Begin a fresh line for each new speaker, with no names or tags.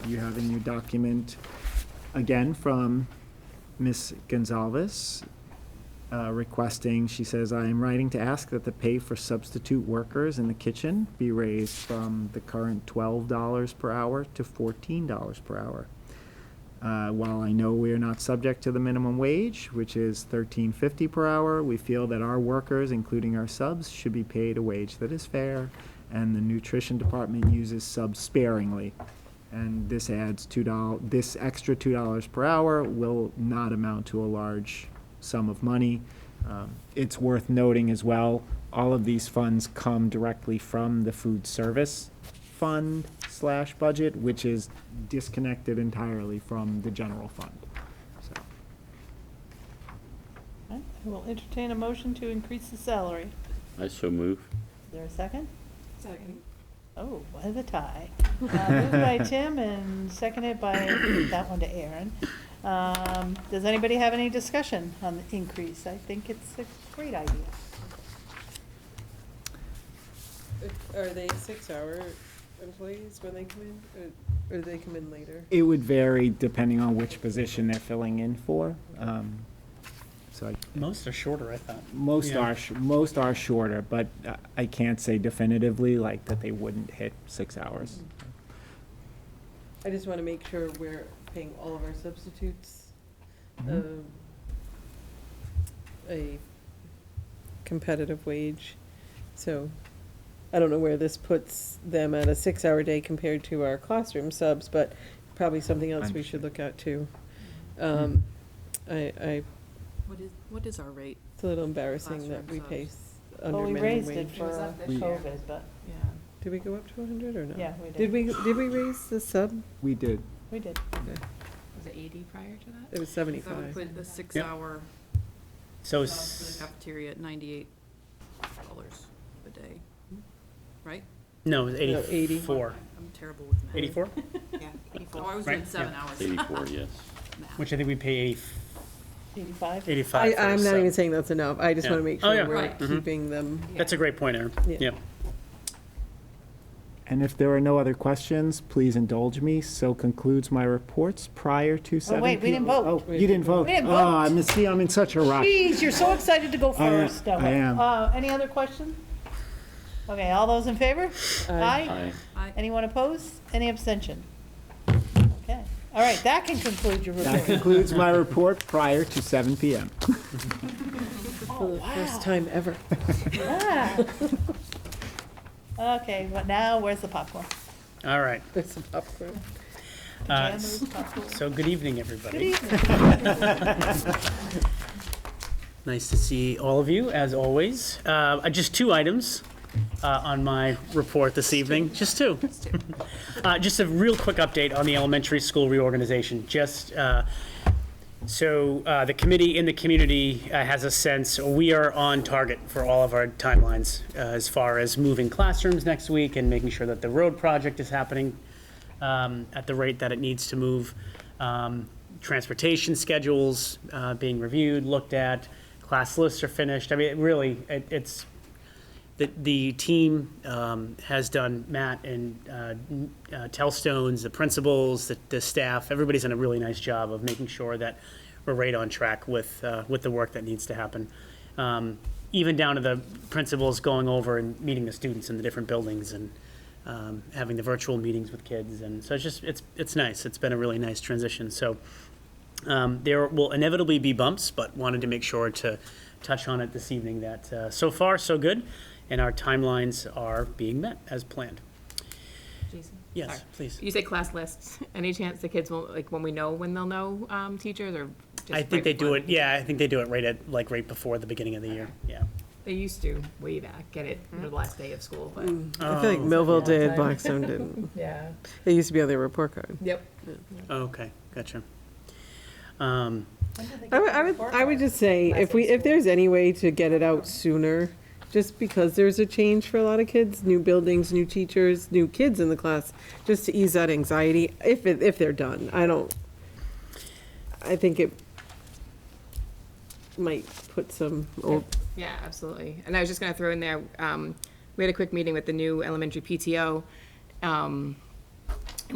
You have in your document, again, from Ms. Gonzalez, uh, requesting, she says, "I am writing to ask that the pay for substitute workers in the kitchen be raised from the current $12 per hour to $14 per hour. Uh, While I know we are not subject to the minimum wage, which is $13.50 per hour, we feel that our workers, including our subs, should be paid a wage that is fair, and the nutrition department uses subs sparingly. And this adds $2, this extra $2 per hour will not amount to a large sum of money. Um, It's worth noting as well, all of these funds come directly from the food service fund slash budget, which is disconnected entirely from the general fund. So,
All right, I will entertain a motion to increase the salary.
I so move.
Is there a second?
Second.
Oh, what a tie. Uh, Moved by Tim and seconded by, that one to Aaron. Um, Does anybody have any discussion on the increase? I think it's a great idea.
Are they six-hour employees when they come in, or, or do they come in later?
It would vary depending on which position they're filling in for. Um, So I
Most are shorter, I thought.
Most
Yeah.
are, sh- most are shorter, but uh, I can't say definitively like that they wouldn't hit six hours.
I just want to make sure we're paying all of our substitutes,
Mm-hmm.
Mm-hmm.
um, a competitive wage. So, I don't know where this puts them at a six-hour day compared to our classroom subs, but probably something else we should
Understood.
look at too. Um, I, I,
What is, what is our rate?
it's a little embarrassing that we
Classroom
pay
subs.
s- under
Well, we
minimum
raised
wage.
it for
was up this year.
COVID, but
Yeah.
Did we go up to hundred or no?
yeah, we did.
Did we, did we raise the sub?
We did.
We did.
Was it eighty prior to that?
It was
So we
seventy-five.
put the six-hour
So, Oh,
job
s-
for the cafeteria at ninety-eight dollars a day, right?
no, it was
No, 80.
84.
I'm terrible with math.
84?
Yeah, eighty-four. Oh, I was doing
Right,
seven
yeah.
hours
Eighty-four, yes.
math.
Which I think we pay 80,
Eighty-five?
85.
I,
for a
I'm not
sub.
even saying that's enough, I just
Yeah.
want to make
Oh, yeah.
sure we're
Right.
Mhm.
keeping them.
That's a great point, Aaron.
Yeah.
Yeah.
And if there are no other questions, please indulge me. So concludes my reports prior to seven.
Oh, wait, we
p-
didn't vote.
Oh, you didn't vote.
We didn't
Oh, I'm, see, I'm in such a rush.
Jeez, you're so excited to go
I am-
first. No,
I am.
uh, Any other question? Okay, all those in favor?
Aye.
I-
Anyone opposed? Any abstention? Okay, all right, that can conclude your
That
report.
concludes my report prior to seven PM.
For the
Oh,
first time ever.
Yeah. Okay, well now, where's the popcorn?
All right.
There's some popcorn.
Uh,
Jan,
s-
where's popcorn?
so, good evening,
Good
everybody.
evening.
Nice to see all of you, as always. Uh, I- just two items uh, on my report this evening. Just two. Uh, Just a real quick update on the elementary school reorganization. Just uh, so uh, the committee in the community uh, has a sense, we are on target for all of our timelines uh, as far as moving classrooms next week and making sure that the road project is happening um, at the rate that it needs to move. Um, Transportation schedules uh, being reviewed, looked at, class lists are finished. I mean, it really, it- it's, the, the team um, has done, Matt and uh, n- uh, Tellstones, the principals, the, the staff, everybody's done a really nice job of making sure that we're right on track with, uh, with the work that needs to happen. Um, Even down to the principals going over and meeting the students in the different buildings and um, having the virtual meetings with kids. And so it's just, it's, it's nice. It's been a really nice transition. So um, There will inevitably be bumps, but wanted to make sure to touch on it this evening that uh, so far, so good, and our timelines are being met as planned.
Jason?
Yes,
Sorry.
please.
You say class lists. Any chance the kids will, like, when we know when they'll know um, teachers or just
I think
right
they do
before?
it, yeah, I think they do it right at, like, right before the beginning of the year, yeah.
They used to way back, get it the last day of school, but,
Oh.
I feel like Millville did, Blackstone didn't.
yeah.
It used to be on their report card.
Yep.
Okay, gotcha. Um,
I would, I would, I would just say, if we, if there's any way to get it out sooner, just because there's a change for a lot of kids, new buildings, new teachers, new kids in the class, just to ease that anxiety, if, it- if they're done, I don't, I think it might put some old
Yeah, absolutely. And I was just going to throw in there, um, we had a quick meeting with the new elementary PTO. Um,